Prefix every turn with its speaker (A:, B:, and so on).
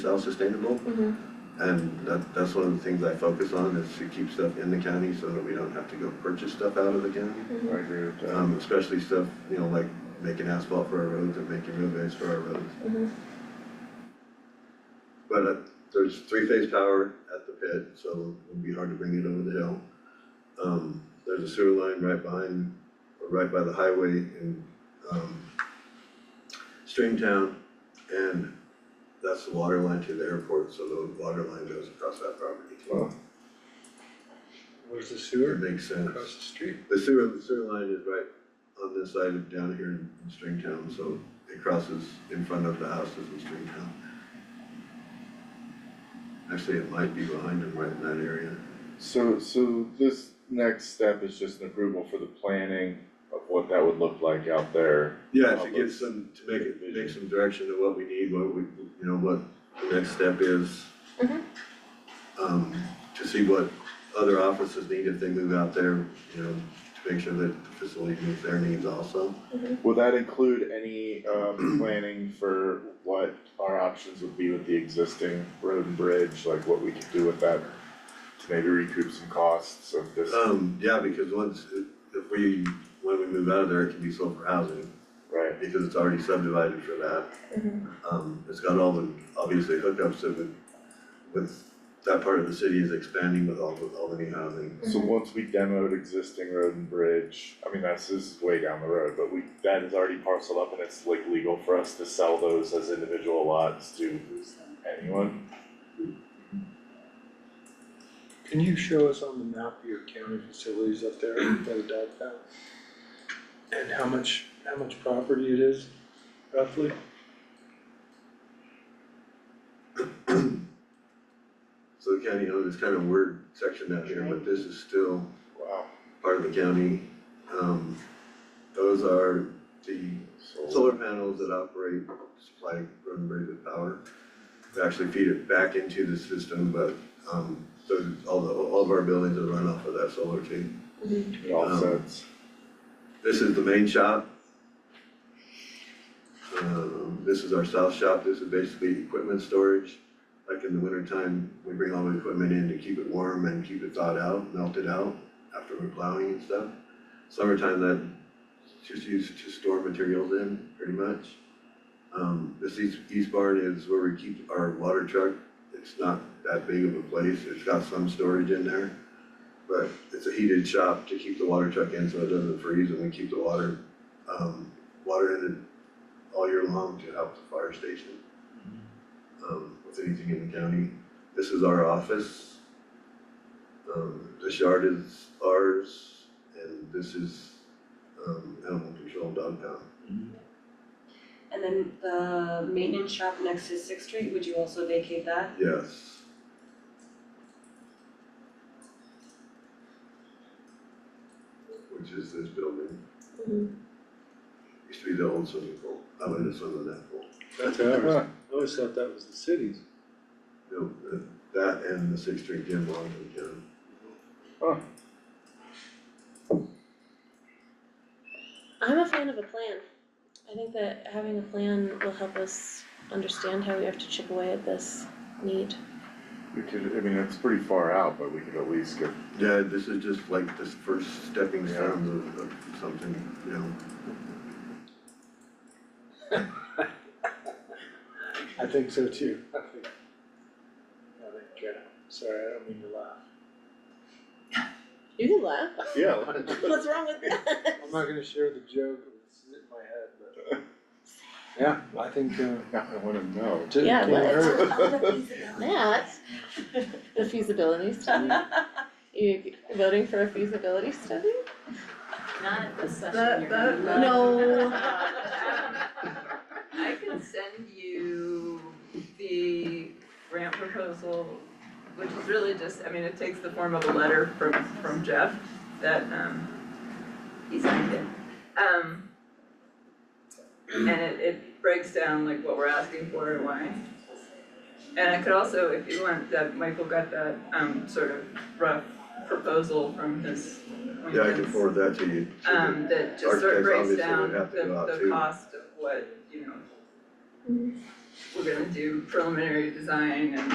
A: self-sustainable.
B: Mhm.
A: And that, that's one of the things I focus on is to keep stuff in the county so that we don't have to go purchase stuff out of the county.
B: Mhm.
C: I agree with that.
A: Um, especially stuff, you know, like making asphalt for our roads and making roadways for our roads.
B: Mhm.
A: But uh, there's three-phase power at the pit, so it'll be hard to bring it over the hill. Um, there's a sewer line right behind, or right by the highway in, um, Stringtown. And that's the water line to the airport, so the water line goes across that property.
C: Wow. Where's the
A: It
C: sewer?
A: makes sense.
C: Across the street?
A: The sewer, the sewer line is right on this side of down here in Stringtown, so it crosses in front of the houses in Stringtown. Actually, it might be behind them right in that area.
D: So, so this next step is just an approval for the planning of what that would look like out there.
A: Yeah, to get some, to make it, make some direction to what we need, what we, you know, what the next step is.
B: Mhm.
A: Um, to see what other offices need if they move out there, you know, to make sure that the facility meets their needs also.
D: Will that include any, um, planning for what our options would be with the existing road and bridge, like what we could do with that? To maybe recoup some costs of this,
A: Um, yeah, because once, if we, when we move out of there, it can be sold for housing,
D: right?
A: because it's already subdivided for that.
B: Mhm.
A: Um, it's got all the, obviously hookups that would, with, that part of the city is expanding with all, with all the new housing.
D: So
B: Mhm.
D: once we demoed existing road and bridge, I mean, that's, this is way down the road, but we, that is already parceled up and it's like legal for us to sell those as individual lots to anyone?
C: Can you show us on the map your county facilities up there that are dog found? And how much, how much property it is roughly?
A: So the county owns this kind of weird section down here, but this is still
D: Wow.
A: part of the county. Um, those are the solar panels that operate, supply road and bridge with power. They actually feed it back into the system, but, um, so all the, all of our buildings are run off of that solar too.
B: Mm-hmm.
D: It all
A: Um,
D: sets.
A: This is the main shop. Um, this is our south shop, this is basically equipment storage. Like in the wintertime, we bring all the equipment in to keep it warm and keep it thawed out, melt it out after we're plowing and stuff. Summertime, that just used to store materials in, pretty much. Um, this east, east barn is where we keep our water truck. It's not that big of a place, it's got some storage in there. But it's a heated shop to keep the water truck in so it doesn't freeze and we keep the water, um, water in it all year long to help the fire station. Um, with anything in the county. This is our office. Um, this yard is ours and this is, um, animal control dog pound.
E: And then the maintenance shop next to Sixth Street, would you also vacate that?
A: Yes. Which is this building,
B: Mhm.
A: used to be the old swimming pool, I went to swim in that pool.
C: That's ours. I always thought that was the city's.
A: No, uh, that and the Sixth Street Gym belong to the county.
B: I'm a fan of a plan. I think that having a plan will help us understand how we have to chip away at this need.
D: We could, I mean, it's pretty far out, but we could at least get,
A: Yeah, this is just like the first stepping
D: Yeah.
A: stones of, of something, you know,
C: I think so too. I think, I think, uh, sorry, I don't mean to laugh.
B: You can laugh.
D: yeah,
B: What's wrong with that?
C: I'm not gonna share the joke, it's in my head, but. Yeah, I think, uh,
D: I wanna know.
C: it
B: Yeah,
C: can't
B: let's-
C: hurt.
B: That, the feasibility study, you voting for a feasibility study?
F: Not at this
G: That-
F: session,
G: that-
F: you're not.
B: No.
F: I can send you the grant proposal, which is really just, I mean, it takes the form of a letter from, from Jeff that, um, he signed it. Um, and it, it breaks down like what we're asking for and why. And I could also, if you want, that Michael got that, um, sort of rough proposal from his
A: yeah, I can
F: acquaintance
A: forward that to you. so that-
F: um that just sort
A: Architects
F: of breaks
A: obviously would
F: down the
A: have to go out
F: the
A: too.
F: cost of what, you know, we're gonna do preliminary design and